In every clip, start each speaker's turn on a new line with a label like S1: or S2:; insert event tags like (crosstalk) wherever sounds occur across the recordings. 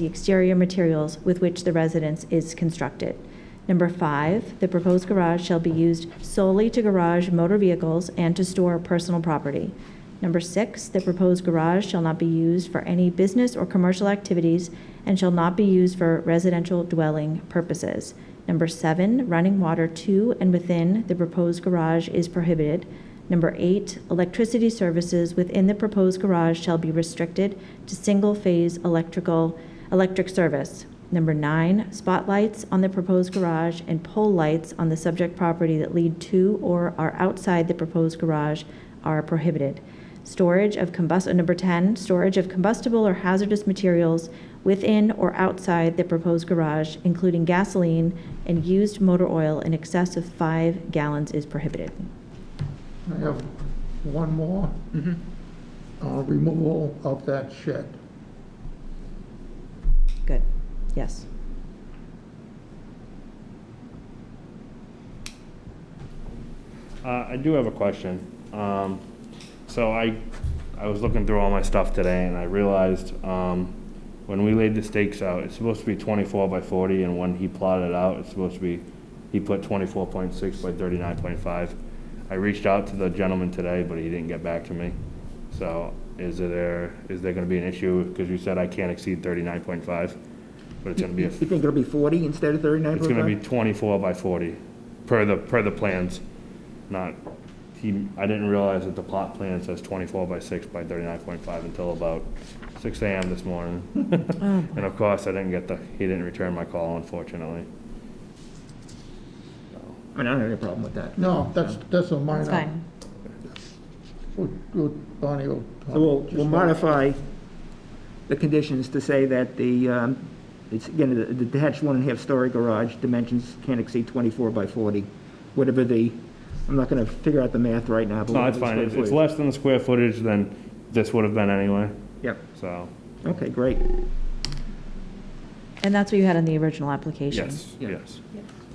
S1: the exterior materials with which the residence is constructed. Number five, the proposed garage shall be used solely to garage motor vehicles and to store personal property. Number six, the proposed garage shall not be used for any business or commercial activities and shall not be used for residential dwelling purposes. Number seven, running water to and within the proposed garage is prohibited. Number eight, electricity services within the proposed garage shall be restricted to single-phase electrical, electric service. Number nine, spotlights on the proposed garage and pole lights on the subject property that lead to or are outside the proposed garage are prohibited. Storage of combust, uh, number 10, storage of combustible or hazardous materials within or outside the proposed garage, including gasoline and used motor oil in excess of five gallons is prohibited.
S2: I have one more,
S3: Mhm.
S2: uh, removal of that shed.
S1: Good, yes.
S4: Uh, I do have a question. Um, so I, I was looking through all my stuff today and I realized, um, when we laid the stakes out, it's supposed to be twenty-four by forty and when he plotted it out, it's supposed to be, he put twenty-four point six by thirty-nine point five. I reached out to the gentleman today, but he didn't get back to me. So is there, is there gonna be an issue? Cause you said I can't exceed thirty-nine point five, but it's gonna be a
S3: You think it'll be 40 instead of 39.5?
S4: It's gonna be twenty-four by forty, per the, per the plans, not, he, I didn't realize that the plot plan says twenty-four by six by thirty-nine point five until about six AM this (laughs) morning. And of course, I didn't get the, he didn't return my call unfortunately.
S3: I mean, I don't have any problem with that.
S2: No, that's, that's a minor.
S1: It's fine.
S2: We'll- we'll- Bonnie will.
S3: So we'll, we'll modify the conditions to say that the, um, it's, again, the the detached one and a half story garage dimensions can't exceed 24 by 40, whatever the, I'm not going to figure out the math right now, but.
S4: No,
S3: whatever
S4: it's
S3: the
S4: fine,
S3: square
S4: it's, it's
S3: footage.
S4: less than the square footage than this would have been anyway,
S3: Yep,
S4: so,
S3: okay, great.
S1: And that's what you had in the original application?
S4: yes,
S3: Yeah.
S4: yes.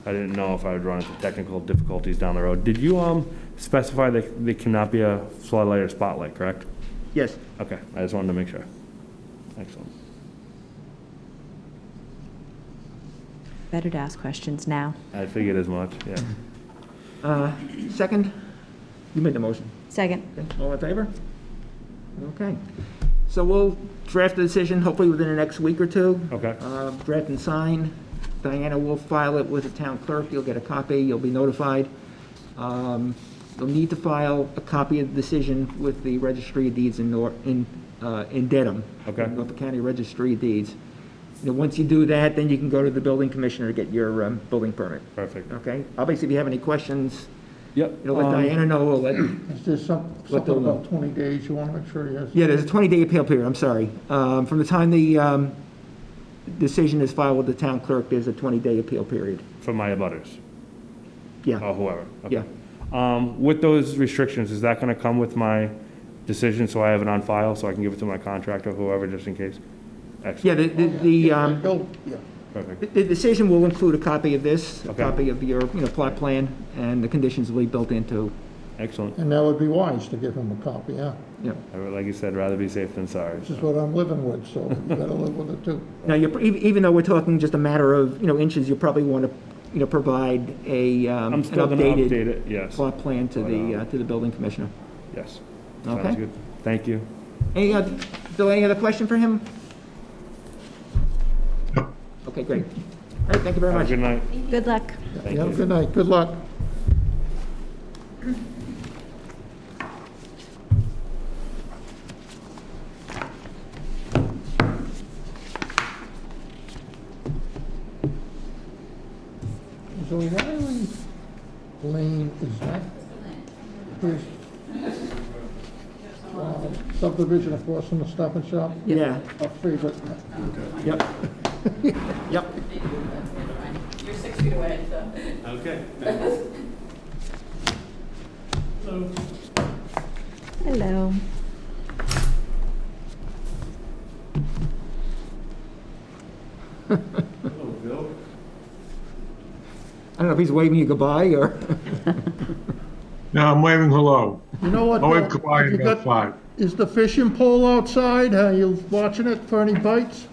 S4: I didn't know if I would run into technical difficulties down the road. Did you, um, specify that there cannot be a floodlight or spotlight, correct?
S3: Yes,
S4: Okay, I just wanted to make sure. Excellent.
S1: Better to ask questions now.
S4: I figured as much, yeah.
S3: uh, second, you made the motion.
S1: Second.
S3: Okay, All in favor? Okay. So we'll draft the decision hopefully within the next week or two.
S4: Okay.
S3: Uh, Draft and sign. Diana will file it with the town clerk. You'll get a copy. You'll be notified. Um, You'll need to file a copy of the decision with the Registry of Deeds in Nor, in, uh, in Dedham.
S4: Okay.
S3: Norfolk County Registry of Deeds. You know, once you do that, then you can go to the building commissioner to get your um, building permit.
S4: Perfect.
S3: Okay? Obviously, if you have any questions,
S4: Yep.
S3: you know, let
S4: um,
S3: Diana know. We'll let
S2: Is there some,
S3: Let
S2: something
S3: them know.
S2: about 20 days you want to make sure he has?
S3: Yeah, there's a 20-day appeal period, I'm sorry. Um, From the time the um, decision is filed with the town clerk, there's a 20-day appeal period.
S4: For my abutters,
S3: Yeah,
S4: or whoever.
S3: yeah.
S4: Oh, Okay. Um, with those restrictions, is that gonna come with my decision, so I have it on file, so I can give it to my contractor, whoever, just in case?
S3: Yeah,
S4: Excellent,
S3: the, the- the, um,
S2: He'll- yeah.
S4: perfect.
S3: the decision will include a copy of this, a
S4: Okay.
S3: copy of your, you know, plot plan, and the conditions will be built into,
S4: Excellent.
S2: And that would be wise to give him a copy, yeah.
S3: you know.
S4: I would- Like you said, rather be safe than sorry.
S2: This is what I'm living with, so you better live with it too.
S3: Now, you're, ev- even though we're talking just a matter of, you know, inches, you probably want to, you know, provide a, um, an
S4: I'm still gonna update
S3: updated
S4: it, yes,
S3: plot plan to
S4: Right
S3: the,
S4: on.
S3: uh, to the building commissioner.
S4: yes.
S3: Okay.
S4: Sounds good. Thank you.
S3: Any, oth- Bill, any other question for him? Okay, great. All right, thank you very
S4: Have a
S3: much.
S4: good night.
S1: Good luck.
S4: Thank
S2: Have a
S4: you.
S2: good night, good luck. So Riley Lane is that his uh, subdivision across from the Stop and Shop?
S3: Yeah,
S2: Our favorite.
S3: yep. (laughs) Yep.
S5: You're six feet away, so.
S1: Hello.
S3: I don't know if he's waving you goodbye or,
S6: No, I'm waving hello.
S2: You know what?
S6: I'll wave
S2: Bill?
S6: goodbye
S2: You
S6: in
S2: got-
S6: about five.
S2: Is the fishing pole outside? Are you watching it for any bites?